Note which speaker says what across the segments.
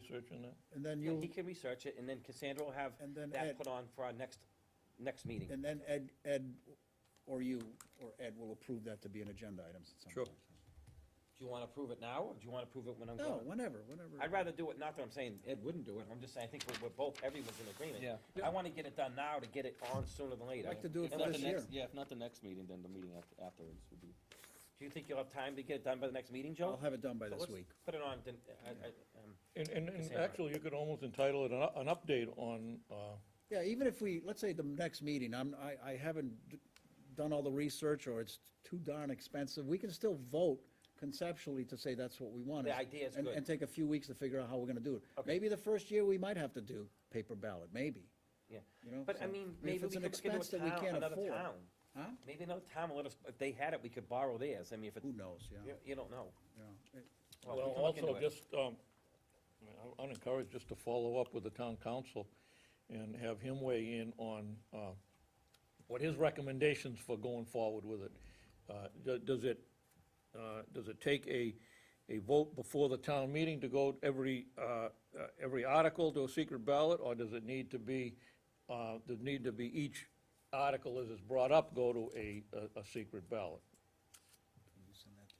Speaker 1: researching that?
Speaker 2: And then
Speaker 3: Yeah,
Speaker 2: you,
Speaker 3: He can research it, and then Cassandra will have
Speaker 2: and then Ed,
Speaker 3: that put on for our next, next meeting.
Speaker 2: and then Ed, Ed, or you, or Ed will approve that to be an agenda item at some
Speaker 1: Sure.
Speaker 2: point.
Speaker 3: Do you wanna approve it now, or do you wanna approve it when I'm
Speaker 2: No,
Speaker 3: gone?
Speaker 2: whenever, whenever.
Speaker 3: I'd rather do it, not that I'm saying Ed wouldn't do it, I'm just saying, I think we're, we're both, everyone's in agreement.
Speaker 4: Yeah.
Speaker 3: I wanna get it done now to get it on sooner than later.
Speaker 2: I'd like to do it
Speaker 4: If
Speaker 2: for
Speaker 4: not
Speaker 2: this
Speaker 4: the
Speaker 2: year.
Speaker 4: next, yeah, if not the next meeting, then the meeting aft- afterwards would be.
Speaker 3: Do you think you'll have time to get it done by the next meeting,
Speaker 2: I'll
Speaker 3: Joe?
Speaker 2: have it done by
Speaker 3: So
Speaker 2: this
Speaker 3: let's
Speaker 2: week.
Speaker 3: Put it on, then, I, I, um,
Speaker 1: And, and, and
Speaker 3: Cassandra.
Speaker 1: actually, you could almost entitle it an, u- an update on, uh,
Speaker 2: Yeah, even if we, let's say the next meeting, I'm, I, I haven't d- done all the research or it's too darn expensive, we can still vote conceptually to say that's what we want.
Speaker 3: The idea is
Speaker 2: and-
Speaker 3: good.
Speaker 2: And take a few weeks to figure out how we're gonna do it.
Speaker 3: Okay.
Speaker 2: Maybe the first year, we might have to do paper ballot, maybe,
Speaker 3: yeah.
Speaker 2: you know?
Speaker 3: But I
Speaker 2: so-
Speaker 3: mean,
Speaker 2: if
Speaker 3: maybe we
Speaker 2: it's an
Speaker 3: could look into a
Speaker 2: expense that we
Speaker 3: town,
Speaker 2: can't
Speaker 3: another
Speaker 2: afford.
Speaker 3: town.
Speaker 2: Huh?
Speaker 3: Maybe another town will let us, if they had it, we could borrow theirs, I mean, if it,
Speaker 2: Who knows, yeah,
Speaker 3: you, you don't know.
Speaker 2: yeah. It-
Speaker 3: we
Speaker 1: well,
Speaker 3: can look into
Speaker 1: also
Speaker 3: it.
Speaker 1: just, um, I mean, I- I'd encourage just to follow up with the town council and have him weigh in on, uh, what his recommendations for going forward with it. Uh, do- does it, uh, does it take a, a vote before the town meeting to go every, uh, uh, every article to a secret ballot? Or does it need to be, uh, does it need to be each article as it's brought up, go to a, a- a secret ballot?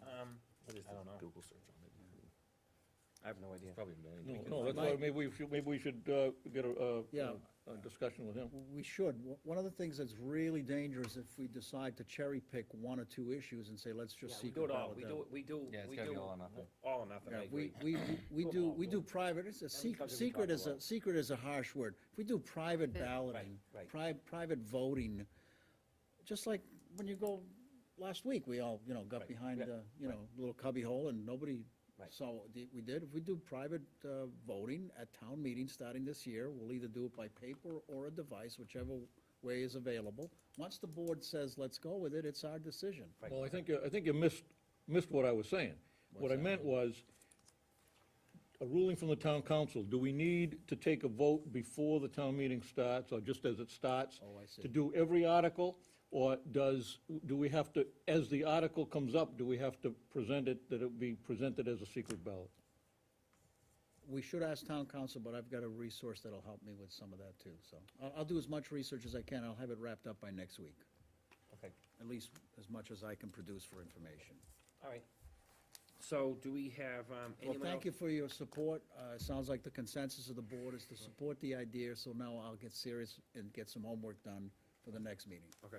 Speaker 3: Um, I don't know.
Speaker 4: Google search on it.
Speaker 3: I have no idea.
Speaker 4: Probably a million.
Speaker 1: No,
Speaker 4: We can
Speaker 1: no,
Speaker 4: find
Speaker 1: that's why,
Speaker 2: Mike-
Speaker 1: maybe we should, maybe we should uh, get a, uh,
Speaker 2: Yeah.
Speaker 1: a discussion with him.
Speaker 2: We should. W- One of the things that's really dangerous if we decide to cherry pick one or two issues and say, let's
Speaker 3: Yeah,
Speaker 2: just
Speaker 3: we
Speaker 2: secret
Speaker 3: do it all,
Speaker 2: ballot
Speaker 3: we
Speaker 2: them.
Speaker 3: do, we do,
Speaker 4: Yeah, it's
Speaker 3: we
Speaker 4: gotta be
Speaker 3: do.
Speaker 4: all or nothing.
Speaker 3: All or nothing,
Speaker 2: Yeah,
Speaker 3: I
Speaker 2: we,
Speaker 3: agree.
Speaker 2: we, we
Speaker 3: Do
Speaker 2: we
Speaker 3: them
Speaker 2: do,
Speaker 3: all,
Speaker 2: we
Speaker 3: do
Speaker 2: do
Speaker 3: them.
Speaker 2: private, it's a
Speaker 3: Then we
Speaker 2: secret,
Speaker 3: cover- we
Speaker 2: secret
Speaker 3: talk
Speaker 2: is a,
Speaker 3: about-
Speaker 2: secret is a harsh word. If we do private balloting,
Speaker 3: right.
Speaker 2: pri- private voting, just like when you go, last week, we all, you know, got
Speaker 3: Right,
Speaker 2: behind
Speaker 3: yeah,
Speaker 2: the, you know, little cubby hole and nobody
Speaker 3: Right.
Speaker 2: saw what di- we did. If we do private, uh, voting at town meetings starting this year, we'll either do it by paper or a device, whichever way is available. Once the board says, let's go with it, it's our decision.
Speaker 3: Right.
Speaker 1: Well, I think, you- I think you missed, missed what I was saying. What I meant was, a ruling from the town council, do we need to take a vote before the town meeting starts, or just as it starts?
Speaker 2: Oh, I see.
Speaker 1: To do every article, or does, do we have to, as the article comes up, do we have to present it, that it be presented as a secret ballot?
Speaker 2: We should ask town council, but I've got a resource that'll help me with some of that too, so. I'll, I'll do as much research as I can, I'll have it wrapped up by next week,
Speaker 3: Okay,
Speaker 2: at least as much as I can produce for information.
Speaker 3: all right. So do we have, um,
Speaker 2: Well,
Speaker 3: anyone else?
Speaker 2: thank you for your support, uh, it sounds like the consensus of the board is to support the idea, so now I'll get serious and get some homework done for the next meeting.
Speaker 3: Okay.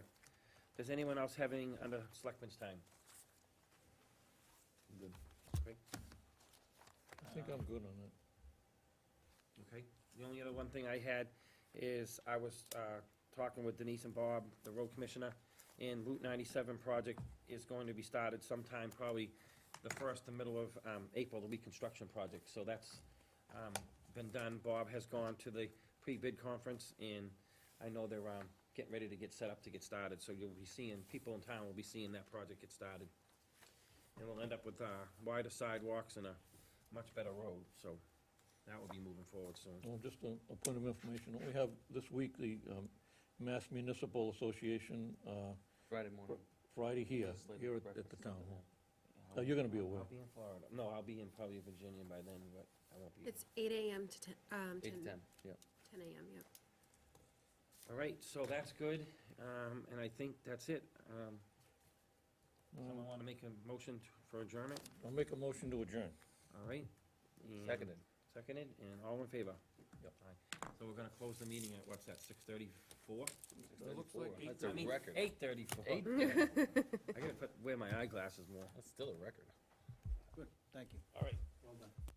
Speaker 3: Does anyone else have any under selectmen's time?
Speaker 4: Good.
Speaker 3: Great,
Speaker 1: I think I'm good on that.
Speaker 3: okay. The only other one thing I had is I was, uh, talking with Denise and Bob, the road commissioner, and Route ninety-seven project is going to be started sometime probably the first, the middle of, um, April, the reconstruction project, so that's, um, been done. Bob has gone to the pre-bid conference, and I know they're, um, getting ready to get set up to get started, so you'll be seeing, people in town will be seeing that project get started. And we'll end up with, uh, wider sidewalks and a much better road, so that will be moving forward soon.
Speaker 1: Well, just a, a point of information, we have this week the um, Mass Municipal Association uh,
Speaker 4: Friday morning.
Speaker 1: Friday here,
Speaker 4: Just like
Speaker 1: here at- at the
Speaker 4: breakfast.
Speaker 1: town hall.
Speaker 4: Oh,
Speaker 1: Uh, You're gonna be
Speaker 3: I'll-
Speaker 1: away.
Speaker 3: I'll be in Florida. No, I'll be in probably Virginia by then, but I won't be.
Speaker 5: It's eight AM to ten, um,
Speaker 4: Eight to
Speaker 5: ten,
Speaker 4: ten, yeah.
Speaker 5: ten AM, yep.
Speaker 3: All right, so that's good, um, and I think that's it. Um, someone wanna make a motion t- for adjournment?
Speaker 1: I'll make a motion to adjourn.
Speaker 3: All right? and-
Speaker 4: Seconded.
Speaker 3: Seconded, and all in favor?
Speaker 1: Yep.
Speaker 3: All right. So we're gonna close the meeting at, what's that, six thirty-four?
Speaker 1: It looks like eight
Speaker 4: That's a record.
Speaker 3: Eight thirty-four. I
Speaker 4: Eight?
Speaker 3: gotta put, wear my eyeglasses more.
Speaker 4: That's still a record.
Speaker 2: Good, thank you.
Speaker 3: All right.